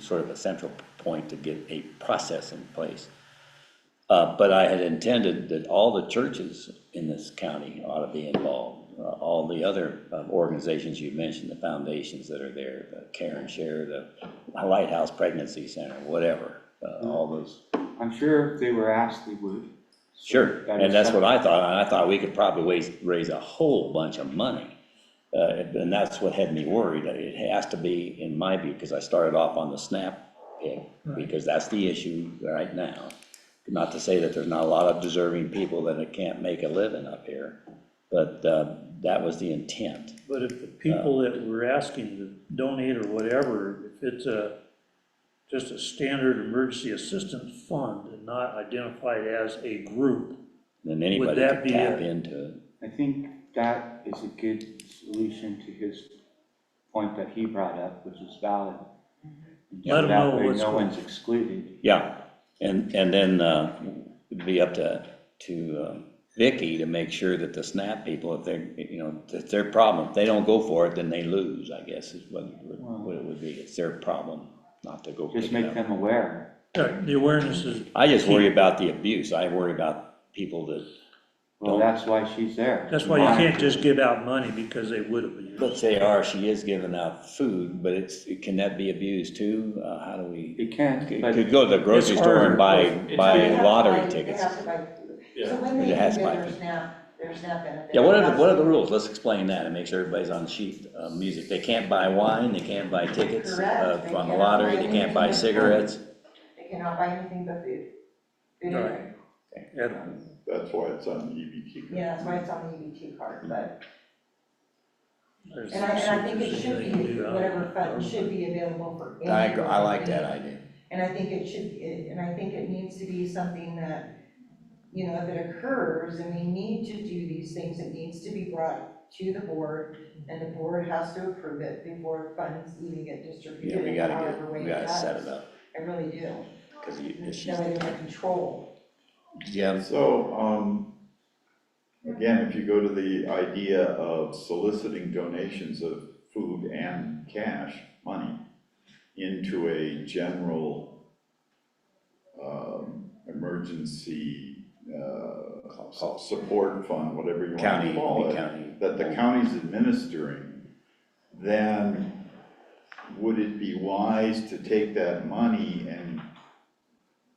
sort of a central point to get a process in place. Uh, but I had intended that all the churches in this county ought to be involved, uh, all the other uh, organizations you mentioned, the foundations that are there, the Care and Share, the Lighthouse Pregnancy Center, whatever, uh, all those I'm sure if they were asked, they would. Sure, That and is that's what I thought, and I thought we could probably raise, raise a whole bunch of money. Uh, and that's what had me worried, it has to be, in my view, because I started off on the SNAP pick, because that's the issue right now. Not to say that there's not a lot of deserving people that can't make a living up here, but, uh, that was the intent. But if Uh, the people that we're asking to donate or whatever, if it's a, just a standard emergency assistance fund and not identified as a group, Then anybody that could be tap a- into it. I think that is a good solution to his point that he brought up, which is valid. Mm-hmm. Let 'em That know way what's No going- one's excluded. Yeah, and, and then uh, it'd be up to, to uh, Vicky to make sure that the SNAP people, if they're, you know, it's their problem. If they don't go for it, then they lose, I guess, is what, it would- what it would be. It's their problem not to go Just pick make it up. them aware. uh, the awareness is, I just worry about the abuse. I worry about people that, Well, Don't- that's why she's there. that's why you can't just give out money because they would have. let's say, are, she is giving out food, but it's, can that be abused too? Uh, How do we? It can, Could but could go to the grocery It's store and harder. buy, It's- buy They have to buy- lottery they tickets. have to buy- So when It they do has to buy their food. SNAP, their SNAP benefit. Yeah, what are, they the- what are the also- rules? Let's explain that and make sure everybody's on the sheet. Uh, Music, they can't buy wine, they can't buy tickets uh, Correct. They from the cannot lottery, buy they can't buy anything. cigarettes. They cannot buy anything but food. Food and Right. drink. at all. That's why it's on the E EBT. Yeah, that's why it's on the EBT card, but, There's and I, and I think it should something they can be, do uh, out of whatever fund government. should be available for. any I, I like that organization. idea. And I think it should, it- and I think it needs to be something that, you know, if it occurs and we need to do these things, it needs to be brought to the board and the board has to approve it before funds even get Yeah, distributed. we gotta however get, way we gotta does. set it up, I really do. because you, if she's, That way they're in control. yeah, So, um, again, if you go to the idea of soliciting donations of food and cash, money, into a general, um, emergency, uh, Call. support fund, whatever you want county, to call any it. county. that the county's administering, then would it be wise to take that money and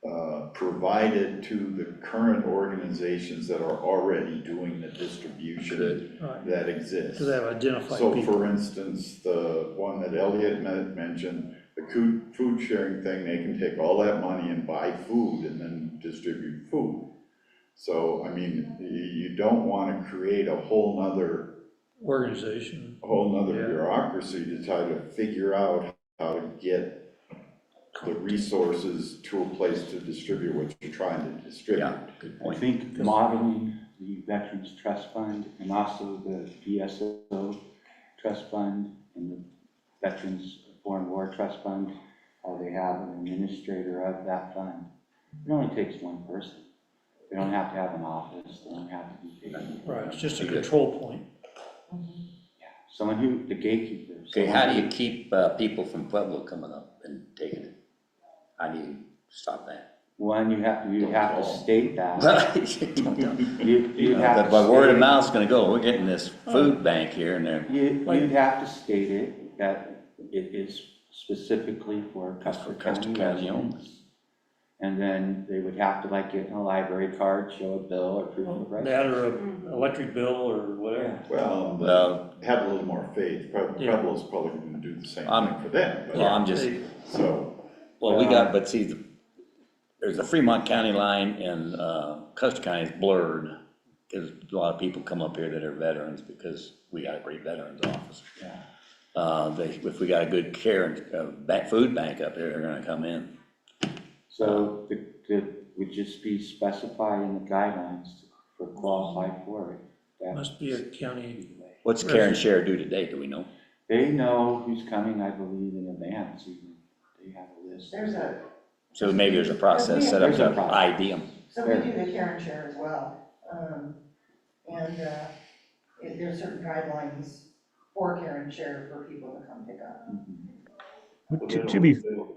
uh, provide it to the current organizations that are already doing the distribution Right. that exists? So they have identified So people. for instance, the one that Elliot men- mentioned, the coo- food sharing thing, they can take all that money and buy food and then distribute food. So, I mean, you, you don't wanna create a whole nother, Organization, a whole nother Yeah. bureaucracy to try to figure out how to get the resources to a place to distribute what you're trying to distribute. Yeah, good I point. think modeling the Veterans Trust Fund and also the VSO Trust Fund and the Veterans Foreign War Trust Fund, how they have an administrator of that fund. It only takes one person. They don't have to have an office, they don't have to be paid. right, it's just a control point. Someone who, the gatekeepers. Okay, how do you keep uh, people from Pueblo coming up and taking it? How do you stop that? One, you have, you Don't have to call. state that. But You, you have to. but word of state- mouth's gonna go, we're getting this food bank here and there. You, Like- you'd have to state it, that it is specifically for Custer Custer County County residents. And then they would have to like get a library card, show a bill or proof of residence. That or Mm-hmm. a electric bill or whatever. Well, Um, the- Well, have a little more faith, Pueblo- Yeah. Um, Pueblo's probably gonna do the same I'm- thing for them, well, but, I'm just. They- so. Well, we Uh, got, but see, the- there's a Fremont County line and uh, Custer County is blurred. Because a lot of people come up here that are veterans because we got a great veterans office. Yeah. Uh, they, if we got a good care and, uh, ba- food bank up here, they're gonna come in. So the, the, would just be specified in the guidelines for qualified for it. that- Must be a county, What's care and share do today, do we know? They know who's coming, I believe, in advance, even, they have a list. There's a, So maybe there's a process set up There's a to process. ID them. so we do the care and share as well. Um, and, uh, it- there's certain guidelines for care and share for people to come pick up. To, to be, They'll